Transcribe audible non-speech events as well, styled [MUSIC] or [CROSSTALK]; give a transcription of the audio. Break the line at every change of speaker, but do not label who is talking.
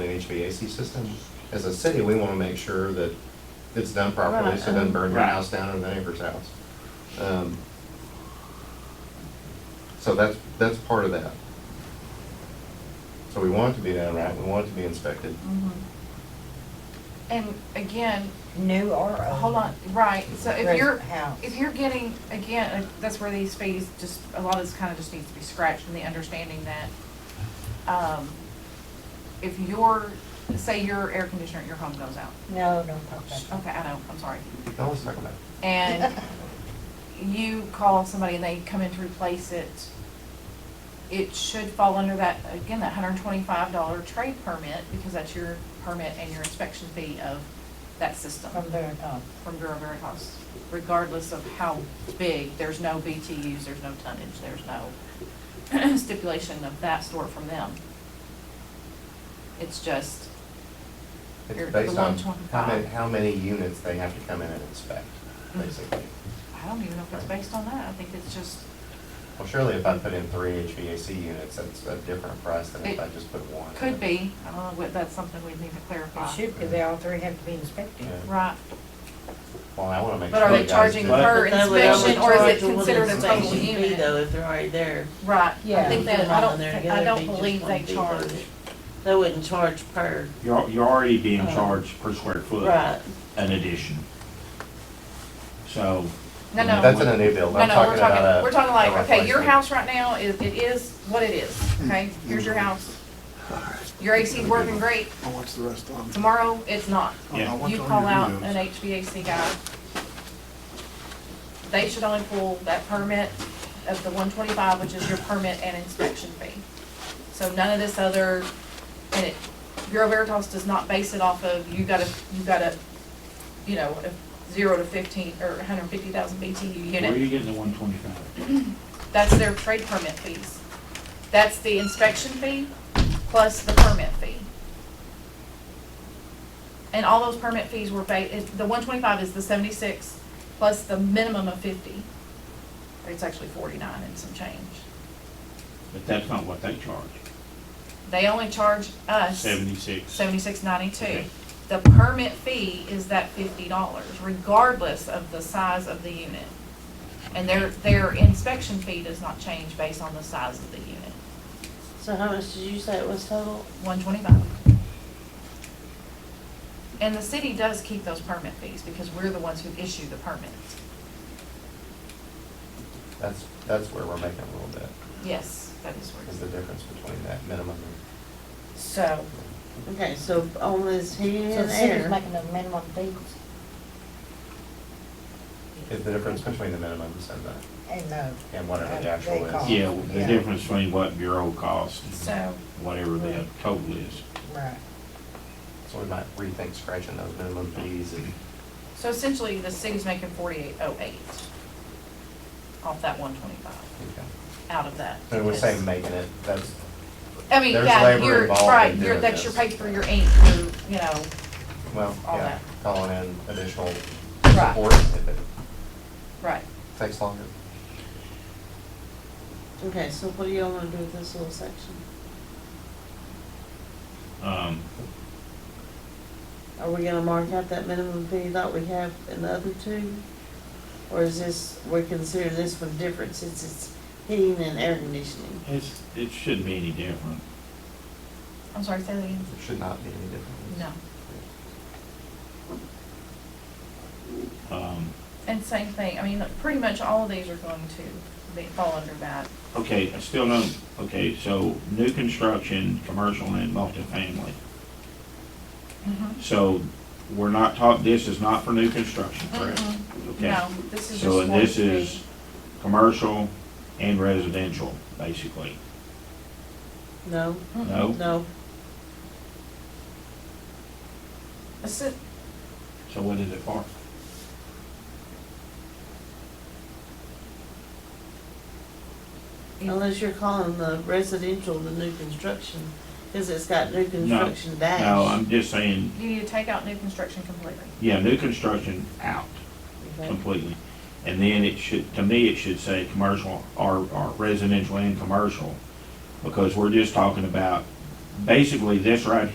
HVAC system. As a city, we want to make sure that it's done properly, so it doesn't burn your
Right.
house down or the neighbor's house. Um, So that's, that's part of that. So we want it to be done right, we want it to be inspected.
Mm-hmm. And again,
New or old?
hold on, right, so if you're,
Rent Oh. house.
if you're getting, again, uh, that's where these fees, just, a lot of this kind of just needs to be scratched and the understanding that, um, if your, say your air conditioner at your home goes out,
No, don't talk about
okay,
that.
I know, I'm sorry,
Now let's talk about
[LAUGHS] and
[LAUGHS]
you call somebody and they come in to replace it, it should fall under that, again, that hundred and twenty-five dollar trade permit, because that's your permit and your inspection fee of that system
From there on.
from Bureau Veritas, regardless of how big, there's no BTUs, there's no tonnage, there's no [CLEARS THROAT] stipulation of that sort from them. It's just,
it.
Or the
It's based on how
125.
many, how many units they have to come in and inspect,
Mhm.
basically.
I don't even know if it's based on that, I think it's just,
Well, surely if I put in three HVAC units, that's a different price than if I just put one.
could be, I don't know, what- that's something we'd need to clarify.
It should be, they all three have to be inspected.
Yeah.
Right,
Well, I want to make sure.
But are they
you guys
charging
do it.
per-
But that would- that would
inspection, or is it
charge what
considered a total
inspection fee,
unit?
Though, if they're already there.
right, I
Yeah.
think that, I don't, thi- I don't believe they charge,
They wouldn't charge per,
You're, you're already being
Uh,
charged per square foot.
right,
An addition. So,
no, no.
That's in a new build,
No,
I'm
no, we're
talking about
talking,
a.
we're talking like,
a
okay, your
replacement.
house right now is, it is what it is, okay? Here's your house. Your AC's working great,
I watch the rest of them.
tomorrow it's not.
Yeah.
You call out an HVAC guy. They should only pull that permit of the one twenty-five, which is your permit and inspection fee. So none of this other, and it, Bureau Veritas does not base it off of, you gotta, you gotta, you know, a zero to fifteen, or hundred and fifty thousand BTU
where are
unit.
you getting the one twenty-five?
That's their trade permit fees. That's the inspection fee plus the permit fee. And all those permit fees were ba, it- the one twenty-five is the seventy-six plus the minimum of fifty. Or It's actually forty-nine and some change.
But that's not what they charge.
They only charge us
Seventy-six.
seventy-six ninety-two.
Okay.
The permit fee is that fifty dollars regardless of the size of the unit. And their, their inspection fee does not change based on the size of the unit.
so how much did you say it was total?
one twenty-five. And the city does keep those permit fees because we're the ones who issue the permits.
That's, that's where we're making a little bit,
Yes, that is where
is
it's.
the difference between that minimum
So,
Okay, so on this heating
So the
and
city's
air,
making the minimum fees
and, is the difference between the minimums and the,
and uh, no.
and whatever
Uh,
And
the actual
they cost.
is.
Yeah, the
Yeah.
difference between what bureau costs and
so,
whatever the total is.
Right.
So we might rethink scratching those minimum fees and,
so essentially the city's making forty-eight oh eight off that one twenty-five,
okay.
out of that.
And we say
because-
making it, that's,
I mean,
there's
yeah,
labor
you're,
involved in
right, you're,
doing
that's your
this.
pay for your ink, your, you know,
well,
All
yeah,
that.
calling in additional
Right.
support if it
right.
takes longer.
okay, so what do y'all wanna do with this little section?
Um,
Are we gonna mark out that minimum fee that we have in the other two? Or is this, we consider this one different since it's heating and air conditioning?
it's, it shouldn't be any different.
I'm sorry, say that again.
It should not be any different.
No.
Um,
And same thing, I mean, like, pretty much all of these are going to, they fall under that.
okay, I still don't, okay, so new construction, commercial and multifamily.
Mm-hmm.
So we're not talking, this is not for new construction, correct?
Mm-mm.
Okay.
No, this is just.
So, and this
one fee.
is commercial and residential, basically,
No,
Mm-mm.
no?
no,
This is-
So what is it for?
unless you're calling the residential the new construction, cause it's got new construction dash.
No, I'm just saying,
You need to take out new construction completely.
yeah, new construction out
Okay.
completely. And then it should, to me, it should say commercial or, or residential and commercial, because we're just talking about, basically, this right